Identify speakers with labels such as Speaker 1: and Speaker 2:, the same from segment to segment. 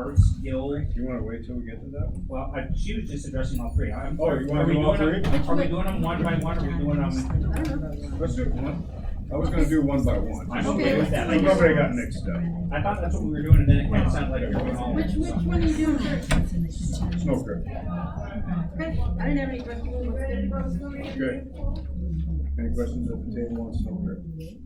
Speaker 1: Arts Guild,
Speaker 2: You wanna wait till we get to that one?
Speaker 1: well, I, she was just addressing all three, I'm.
Speaker 2: Oh, you wanna
Speaker 1: are we
Speaker 2: do all
Speaker 1: doing them-
Speaker 3: three?
Speaker 1: Are we doing them one by one, or are we doing them
Speaker 2: Let's do,
Speaker 1: one?
Speaker 2: I was gonna do one by one.
Speaker 1: I'm okay with that, like,
Speaker 2: Nobody got mixed up.
Speaker 1: I thought that's what we were doing, and then it kind of sounded like we were going all.
Speaker 3: Which, which one are you doing first?
Speaker 2: It's no good.
Speaker 3: Okay, I didn't have any questions.
Speaker 2: Good. Any questions at the table on snow grid?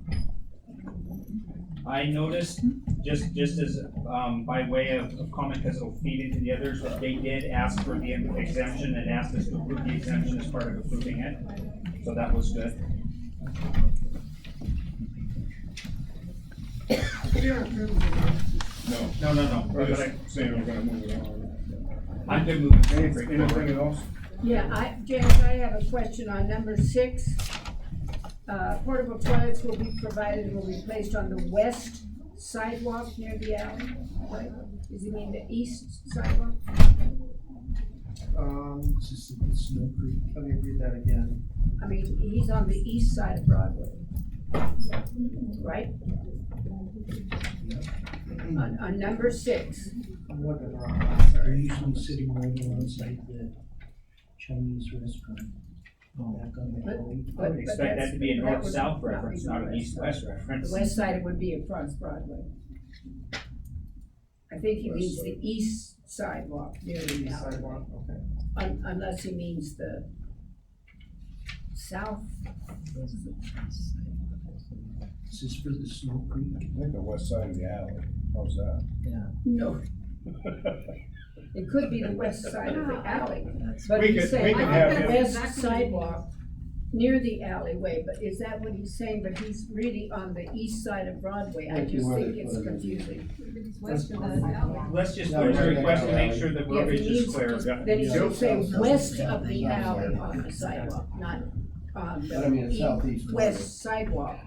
Speaker 1: I noticed, just, just as, um, by way of of comment, because it'll feed into the others, they did ask for the exemption and asked us to approve the exemption as part of approving it, so that was good.
Speaker 2: No.
Speaker 1: No, no, no,
Speaker 2: I'm
Speaker 1: but
Speaker 2: just
Speaker 1: I,
Speaker 2: saying I'm gonna move it on.
Speaker 1: I'm good moving.
Speaker 2: Anything, anything else?
Speaker 4: Yeah, I, James, I have a question on number six. Uh, portable toilets will be provided, and will be placed on the west sidewalk near the alley. Right? Does he mean the east sidewalk?
Speaker 5: Um, it's just, it's Snow Creek, let me read that again.
Speaker 4: I mean, he's on the east side of Broadway. Right? On, on number six,
Speaker 5: I'm looking wrong,
Speaker 6: They're
Speaker 5: sorry.
Speaker 6: uh, usually sitting right alongside the Chinese restaurant. Back on the alley.
Speaker 1: I would
Speaker 4: but- but
Speaker 1: expect that
Speaker 4: that's-
Speaker 1: to be a
Speaker 4: that would
Speaker 1: north-south
Speaker 4: not
Speaker 1: reference,
Speaker 4: be
Speaker 1: not an
Speaker 4: west.
Speaker 1: east-west
Speaker 4: The
Speaker 1: reference.
Speaker 4: west side would be across Broadway. I think he means the east sidewalk near the
Speaker 5: East
Speaker 4: alley.
Speaker 5: sidewalk, okay.
Speaker 4: Un- Unless he means the south,
Speaker 6: This is for the Snow Creek.
Speaker 2: I think the west side of the alley. How's that?
Speaker 4: no, it could be the west side of the alley. But
Speaker 2: We
Speaker 4: he's
Speaker 2: could-
Speaker 4: saying
Speaker 2: we could
Speaker 4: on
Speaker 2: have
Speaker 4: the
Speaker 2: him-
Speaker 4: west sidewalk, near the alleyway, but is that what he's saying? But he's really on the east side of Broadway, I
Speaker 5: Like you
Speaker 4: just
Speaker 5: wanted
Speaker 4: think it's
Speaker 5: to put it in.
Speaker 4: confusing.
Speaker 3: West of the alley.
Speaker 1: Let's just
Speaker 5: Yeah,
Speaker 1: put a
Speaker 5: right.
Speaker 1: request to make sure that
Speaker 4: Yeah, if
Speaker 1: verbiage
Speaker 4: he
Speaker 1: is
Speaker 4: needs
Speaker 1: clear.
Speaker 4: to- Then he
Speaker 2: Yeah.
Speaker 4: should say
Speaker 2: Yeah.
Speaker 4: west of the
Speaker 5: Yeah.
Speaker 4: alley on the sidewalk, not on
Speaker 5: But I mean,
Speaker 4: the
Speaker 5: it's southeast.
Speaker 4: east, west sidewalk.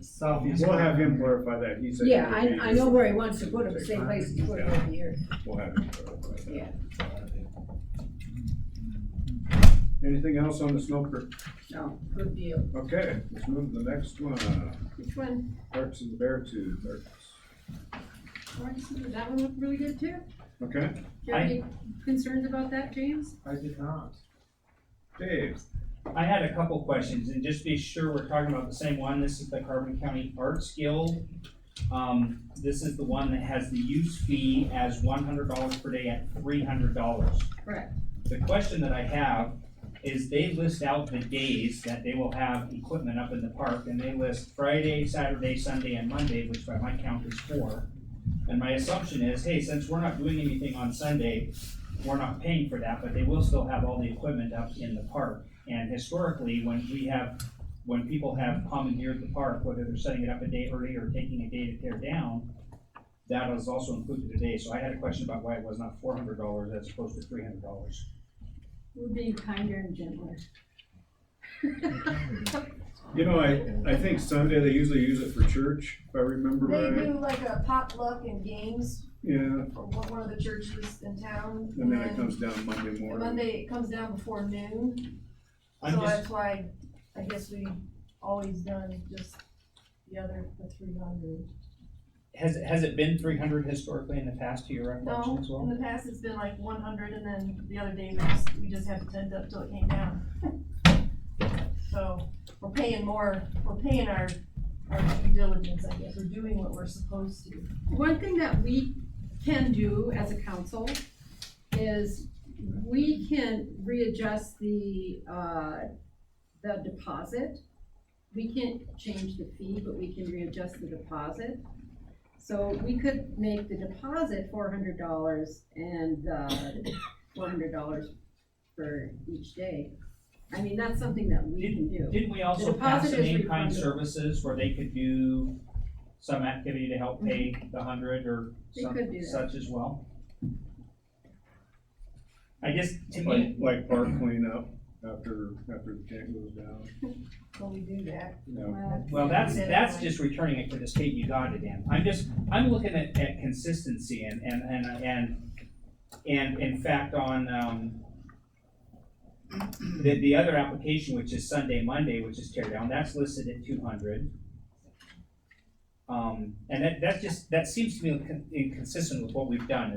Speaker 5: Southeast.
Speaker 2: We'll have him clarify that. He said. he
Speaker 4: Yeah,
Speaker 2: would be-
Speaker 4: I, I know where he wants to put it, the same place he's put it over here.
Speaker 2: We'll have him clarify that.
Speaker 4: Yeah.
Speaker 2: Anything else on the snow grid?
Speaker 4: No, good deal.
Speaker 2: Okay, let's move to the next one.
Speaker 3: Which one?
Speaker 2: Parks and Bear Tube, Parks.
Speaker 3: That one looked really good too.
Speaker 2: Okay,
Speaker 3: Do you have any concerns about that, James?
Speaker 5: I did not.
Speaker 2: Dave,
Speaker 1: I had a couple questions, and just be sure we're talking about the same one, this is the Carbon County Arts Guild. Um, this is the one that has the use fee as one hundred dollars per day at three hundred dollars.
Speaker 3: Correct.
Speaker 1: The question that I have is they list out the days that they will have equipment up in the park, and they list Friday, Saturday, Sunday, and Monday, which by my count is four. And my assumption is, hey, since we're not doing anything on Sunday, we're not paying for that, but they will still have all the equipment up in the park. And historically, when we have, when people have commandeered the park, whether they're setting it up a day early or taking a day to tear down, that is also included today, so I had a question about why it was not four hundred dollars as opposed to three hundred dollars.
Speaker 3: We're being kinder and gentler.
Speaker 2: you know, I, I think Sunday they usually use it for church, if I remember
Speaker 7: They
Speaker 2: right.
Speaker 7: do like a potluck and games
Speaker 2: Yeah,
Speaker 7: for one one of the churches in town.
Speaker 2: and then it comes down Monday
Speaker 7: and
Speaker 2: morning.
Speaker 7: Monday, it comes down before noon,
Speaker 1: I'm
Speaker 7: so
Speaker 1: just,
Speaker 7: that's why, I guess we always done just the other, the three hundred.
Speaker 1: has, has it been three hundred historically in the past, to your recollection
Speaker 7: No,
Speaker 1: as
Speaker 7: in
Speaker 1: well?
Speaker 7: the past, it's been like one hundred, and then the other day, we just, we just had to tend up till it came down. So, we're paying more, we're paying our, our due diligence, I guess, we're doing what we're supposed to.
Speaker 3: One thing that we can do as a council is we can readjust the, uh, the deposit. We can't change the fee, but we can readjust the deposit. So we could make the deposit four hundred dollars and, uh, four hundred dollars for each day. I mean, that's something that we can do.
Speaker 1: Didn't we also
Speaker 3: The deposit
Speaker 1: pass an
Speaker 3: is
Speaker 1: in-kind
Speaker 3: refundable.
Speaker 1: services where they could do some activity to help pay the hundred or
Speaker 3: Mm-hmm. They
Speaker 1: some
Speaker 3: could do that.
Speaker 1: such as well? I guess, to me,
Speaker 2: Like, like park cleanup after, after the tank goes down,
Speaker 7: So we do that.
Speaker 2: you know.
Speaker 1: Well, that's, that's just returning it to the state you got it in. I'm just, I'm looking at, at consistency and, and, and, and, and in fact, on, um, the, the other application, which is Sunday, Monday, which is tear down, that's listed at two hundred. Um, and that, that's just, that seems to be incon- inconsistent with what we've done,